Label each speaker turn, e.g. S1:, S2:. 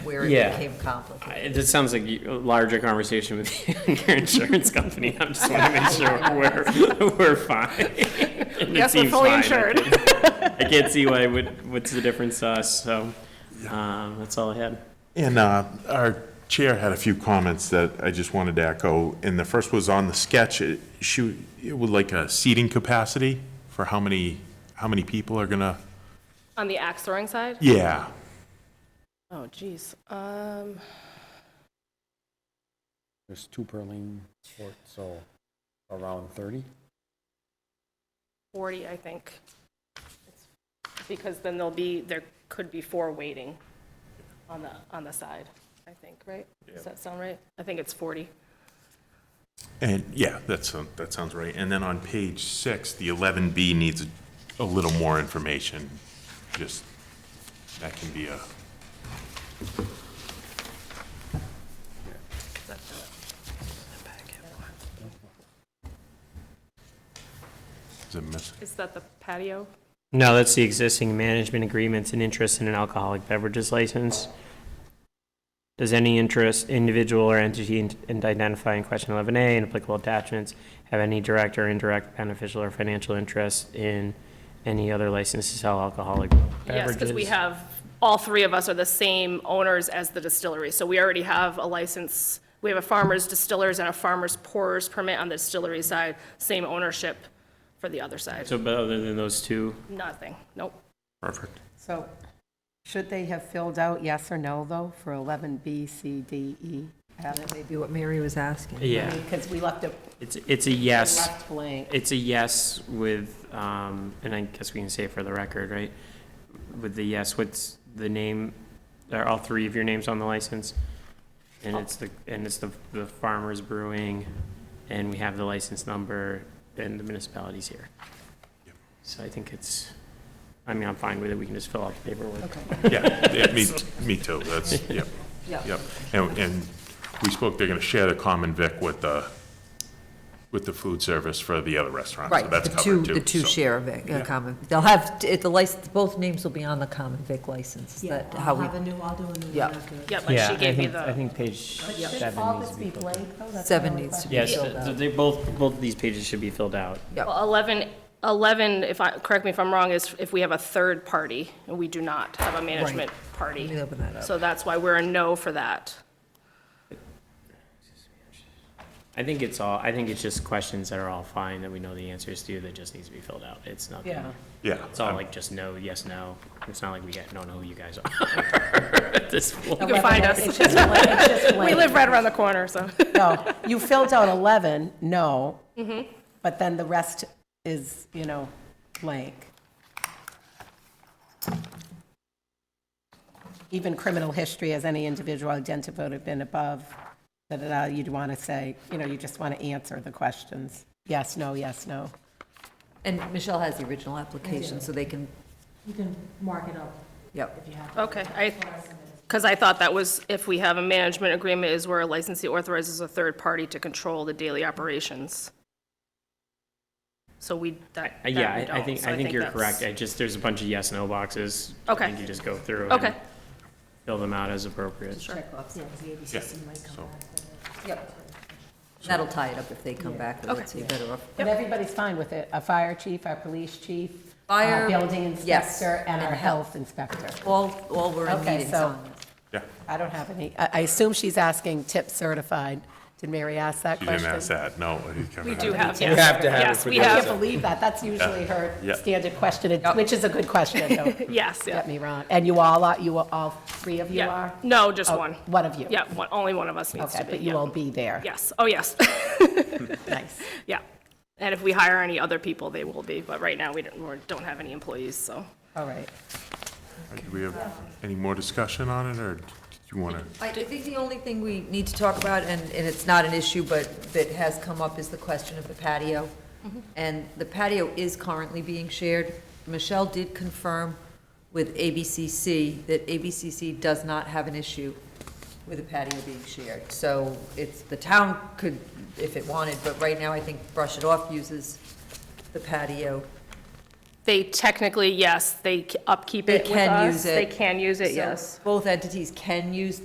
S1: where it
S2: Yeah.
S1: became complicated.
S2: I- This sounds like you- a larger conversation with your insurance company. I just want to make sure we're, we're fine. And it
S3: Yes, we're
S2: seems
S3: fully
S2: fine.
S3: insured.
S2: I can't see why, would- what's the difference to us, so, um, that's all I had.
S4: And uh, our chair had a few comments that I just wanted to echo, and the first was on the sketch, it- she it would like a seating capacity for how many, how many people are gonna,
S3: On the axe throwing side?
S4: yeah,
S3: Oh, geez. Um,
S5: There's two per lane, court, so around 30.
S3: 40, I think. Because then there'll be, there could be four waiting on the, on the side, I think, right? Does that sound right? I think it's 40.
S4: and, yeah, that's, um, that sounds right. And then on page six, the 11B needs a little more information, just, that can be a, is it missing?
S3: Is that the patio?
S2: No, that's the existing management agreements and interest in an alcoholic beverages license. Does any interest, individual or entity in- in identifying question 11A and applicable attachments have any direct or indirect beneficial or financial interest in any other license to sell alcoholic beverages?
S3: Yes, because we have, all three of us are the same owners as the distillery, so we already have a license. We have a farmer's distillers and a farmer's pourers permit on the distillery side, same ownership for the other side.
S2: So, but other than those two,
S3: Nothing, nope.
S4: Perfect.
S6: So should they have filled out yes or no, though, for 11B, C, D, E, F?
S1: That may be what Mary was asking.
S2: yeah,
S6: Because we left it
S2: it's, it's a yes.
S6: left blank.
S2: It's a yes with, um, and I guess we can say it for the record, right? With the yes, what's the name, are all three of your names on the license? And
S6: Oh.
S2: it's the, and it's the, the Farmers Brewing, and we have the license number, and the municipality's here. So I think it's, I mean, I'm fine with it, we can just fill out the paperwork.
S4: Yeah, yeah, me, me too, that's, yep,
S6: Yeah.
S4: yep. And, and we spoke, they're gonna share the common vic with the, with the food service for the other restaurants, so
S1: Right,
S4: that's
S1: the two,
S4: covered too.
S1: the two
S4: so.
S1: share of it,
S4: Yeah.
S1: a common, they'll have, t- it- the license, both names will be on the common vic license, is that how we,
S6: new, I'll do a new
S1: Yeah.
S3: Yeah, like she gave me
S2: I
S3: the,
S2: think page
S6: Should
S2: seven
S6: all
S2: needs
S6: this
S2: to be.
S6: be blank, though? That's
S1: Seven
S6: my only
S1: needs to be
S6: question.
S2: Yes, so they both, both of these pages should be filled out.
S3: well, 11, 11, if I, correct me if I'm wrong, is if we have a third party, and we do not have a management party.
S1: Let me open that up.
S3: So that's why we're a no for that.
S2: I think it's all, I think it's just questions that are all fine, that we know the answers to, that just needs to be filled out. It's not,
S6: Yeah.
S2: gonna-
S4: Yeah.
S2: it's all
S4: I'm-
S2: like just no, yes, no. It's not like we don't know who you guys are at this point.
S3: You can find us.
S6: It's just blank, it's just
S3: We
S6: blank.
S3: live right around the corner, so.
S6: No, you filled out 11, no, but then the rest is, you know, blank. Even criminal history as any individual identified have been above, da-da-da, you'd want to say, you know, you just want to answer the questions. Yes, no, yes, no.
S1: and Michelle has the original application, so they can,
S7: You can mark it up
S1: yep.
S7: if you have.
S3: Okay, I, because I thought that was, if we have a management agreement, is where a licensee authorizes a third party to control the daily operations. So we, that,
S2: Uh, Yeah,
S3: that we
S2: I- I
S3: don't,
S2: think,
S3: so
S2: I think you're
S3: that's-
S2: correct. I just, there's a bunch of yes, no boxes. I
S3: Okay.
S2: think you just go through and
S3: Okay.
S2: fill them out as appropriate.
S7: Check off, yeah, the ABCC might come
S4: so-
S7: back.
S1: Yep. That'll tie it up if they come back with it, so you better off.
S6: But everybody's fine with it, our fire chief, our police chief,
S1: Fire,
S6: our building
S1: yes,
S6: inspector, and our
S1: and
S6: health inspector.
S1: All, all we're in
S6: Okay,
S1: meetings
S6: so-
S1: on.
S4: Yeah,
S6: I don't have any, I I assume she's asking tip certified. Did Mary ask that
S4: you
S6: question?
S4: didn't ask that, no. you covered
S3: We
S4: that.
S3: do have, yes.
S5: We have to have it
S3: Yes,
S5: for
S3: we
S5: the-
S6: I
S3: have,
S6: can't believe that. That's usually her
S4: Yeah.
S6: standard question, It- which is a good question, don't
S3: yes, yeah.
S6: get me wrong. And you all are, you are, all three of you
S3: Yeah.
S6: are?
S3: No, just
S6: Oh,
S3: one.
S6: one of you.
S3: Yeah, one, only one of us needs
S6: Okay,
S3: to be.
S6: but you
S3: yeah.
S6: will be there.
S3: Yes, oh, yes,
S6: Nice.
S3: yeah. And if we hire any other people, they will be, but right now, we don't, we don't have any employees, so.
S6: All right.
S4: Do we have any more discussion on it, or do you wanna?
S1: I I think the only thing we need to talk about, and, and it's not an issue, but that has come up, is the question of the patio. And the patio is currently being shared. Michelle did confirm with ABCC that ABCC does not have an issue with a patio being shared. So it's, the town could, if it wanted, but right now I think Brush It Off uses the patio.
S3: They technically, yes, they upkeep
S1: They
S3: it with
S1: can
S3: us.
S1: use it.
S3: They can use it,
S1: So
S3: yes.
S1: Both entities can use